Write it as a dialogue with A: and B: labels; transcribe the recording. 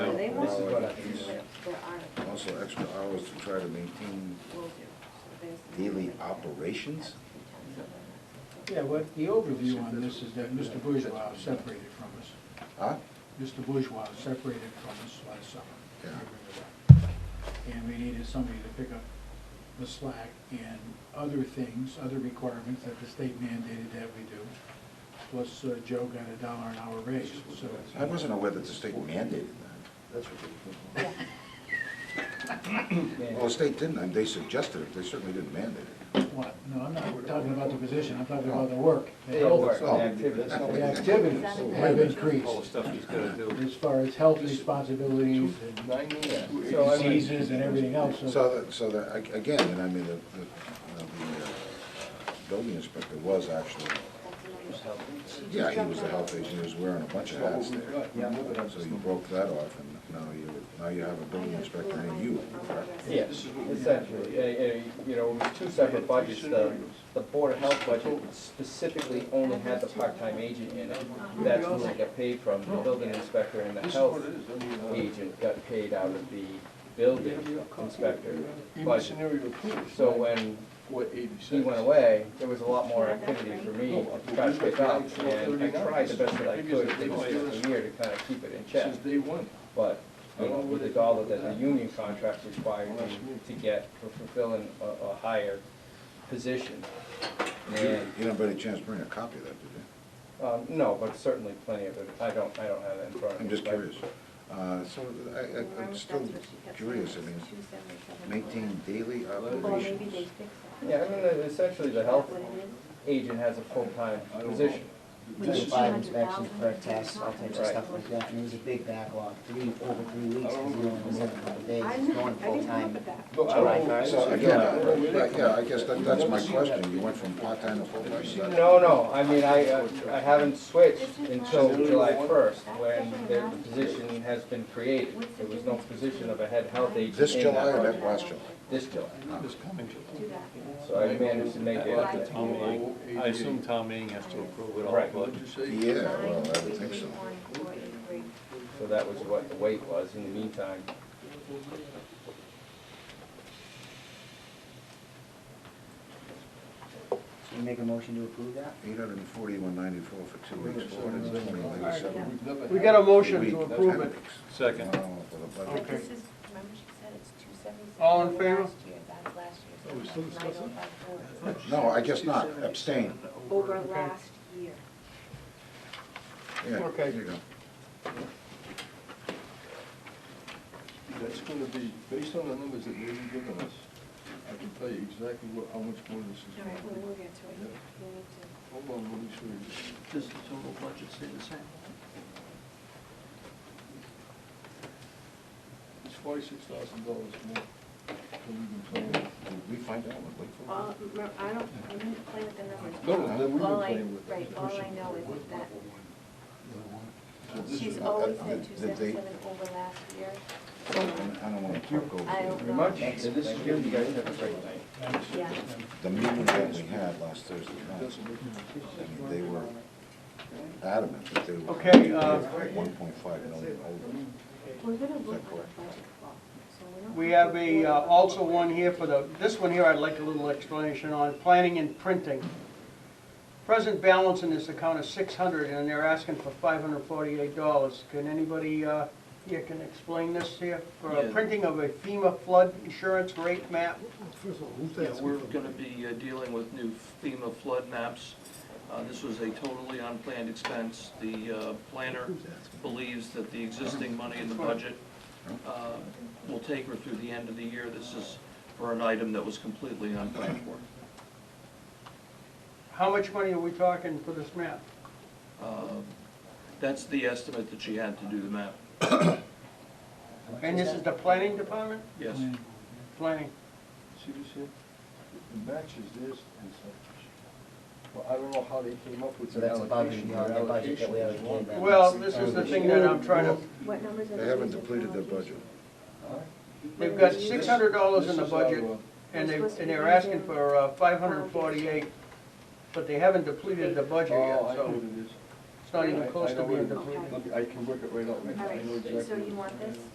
A: Right.
B: This is what I-
A: There are,
C: Also extra hours to try to maintain
A: will do. So there's-
C: daily operations?
B: Yeah, what, the overview on this is that Mr. Bourgeois is separated from us.
C: Huh?
B: Mr. Bourgeois is separated from us last summer. I
C: Yeah.
B: remember that. And we needed somebody to pick up the slack and other things, other requirements that the state mandated that we do. Plus uh, Joe got a dollar an hour raise, so.
C: I wasn't aware that the state mandated that.
D: That's ridiculous.
C: Well, the state didn't, and they suggested it, they certainly didn't mandate it.
B: What? No, I'm not talking about the position, I'm talking about the work.
D: Hey, over.
C: Oh.
D: The activity, that's not-
B: The activities have
D: All the
B: increased
D: stuff he's gonna do.
B: as far as health responsibilities and
D: Nine years. So I mean,
B: diseases and everything else.
C: So that, so that, ag- again, and I mean, the, the, the uh, building inspector was actually,
A: That's another-
C: yeah, he was a health agent, he was wearing a bunch of
D: so what
C: hats
D: we've
C: there.
D: got, yeah, look at us.
C: So you broke that off, and now you, now you have a building inspector and you, correct?
E: Yeah, essentially, Uh, uh, you know, it was two separate budgets, the, the Board of Health budget specifically only had the part-time agent in it. That's who they got paid from, the building inspector and the
D: This is
E: health
D: what it is, I mean, uh,
E: agent got paid out of the building inspector
D: even
E: budget.
D: scenario two is
E: So when
D: four eighty-six.
E: he went away, there was a lot more activity for me to try to pick up, and I tried the best that I could for this fiscal year to kind of keep it in check.
D: Since day one.
E: But you know, we did all of that, the union contract required you to get, for fulfilling a, a higher position. And,
C: You don't by any chance bring a copy of that, did you?
E: um, no, but certainly plenty of it, I don't, I don't have it in front of me.
C: I'm just
E: but-
C: curious. Uh, So I- I, I'm still curious, I mean, maintain daily
A: Well, maybe
C: operations.
A: they fix it.
E: Yeah, I mean, uh, essentially, the health agent has a full-time position.
F: We did five inspections per test, all types of
E: Right.
F: stuff like that, and it was a big backlog, three, over three weeks, because we only was in a couple days,
A: I
F: it's
A: know, I
F: going
A: didn't look
F: full-time.
A: at that.
D: No, I
F: July
D: don't-
F: first.
C: So again, I- I- yeah, I guess that, that's my question. You went from part-time to full-time. is that-
E: No, no, I mean, I, uh, I haven't switched until July first, when the position has been created. There was no position of a head health agent
C: This
E: in that
C: July or
E: budget.
C: that last July?
E: This July,
D: This coming
A: Do that.
E: so I managed to make it.
D: Tom Meehan.
G: I assume Tom Meehan has to approve it all,
E: Right.
G: but
D: What'd you say?
C: Yeah, well, I
A: Nine,
C: would
A: three,
C: think
A: three,
C: so.
A: one, four, eight, three.
E: So that was what the wait was, in the meantime.
F: Should we make a motion to approve that?
C: Eight hundred and forty-one ninety-four for two weeks, four hundred and twenty ninety-seven.
D: We've never
B: We
D: had-
B: got a motion to approve it.
G: Second.
C: Oh,
A: But
B: Okay.
A: this is, remember she said it's two seventy-six.
B: All in favor?
A: Last year, that's last year.
D: Oh, we still discussing?
C: No, I guess not, abstain.
A: oh Over last year.
C: Yeah,
B: Okay.
C: there you go.
D: That's gonna be, based on the numbers that they've given us, I can tell you exactly what, how much more this is
A: All right, well,
D: gonna
A: we'll
D: be.
A: get to it. We need to-
D: Hold on, let me show you.
H: Does the total budget stay the same?
D: It's forty-six thousand dollars more than we've been paying.
C: Did we find out what Lakeville? was?
A: All, remember, I don't, I didn't play with the numbers.
D: No, that we've been
A: All I-
D: playing with.
A: Right, all I know is that
D: So this
A: she's
D: is- uh,
A: always said two
C: Did they-
A: seventy-seven over last year.
C: I don't want to talk over.
A: I
C: it.
A: don't
E: Pretty
A: know.
E: much, and this is good, you guys have a great night.
A: Yeah.
C: The meeting that we had last Thursday night,
D: Doesn't look like
C: I mean, they were adamant that they were.
B: Okay, uh,
C: One point five million over.
A: We're gonna look at
C: Is that
A: the
C: correct?
A: budget clock, so we don't.
I: We have a, uh, also one here for the, this one here I'd like a little explanation on, planning and printing. Present balance in this account is six hundred, and they're asking for five hundred forty-eight dollars. Can anybody, uh, here can explain this here? For a
H: Yeah.
I: printing of a FEMA flood insurance rate map,
H: Yeah, we're gonna be uh, dealing with new FEMA flood maps. Uh, This was a totally unplanned expense. The uh, planner believes that the existing money in the budget uh, will take her through the end of the year. This is for an item that was completely unplanned for.
I: how much money are we talking for this map?
H: Uh, That's the estimate that she had to do the map,
I: And this is the planning department?
H: yes.
I: Planning.
D: See this here? It matches this and such. Well, I don't know how they came up with
F: So
D: the
F: that's above and
D: allocation.
F: beyond their budget that we
D: allocation is
F: allocated
D: one-
F: them.
I: Well, this is the thing that I'm trying to,
A: What numbers are
C: They haven't depleted their budget.
I: they've got six hundred dollars in the
D: This is our,
I: budget.
D: uh,
I: And they, and they're asking for uh, five hundred and forty-eight, but they haven't depleted the budget yet,
D: Oh, I know
I: so
D: what it is.
I: it's not even
D: I- I
I: close to
D: know
I: being
D: what it
I: depleted.
D: is. I can work it right out.
A: All
D: I know
A: right, so
D: exactly.
A: you want this?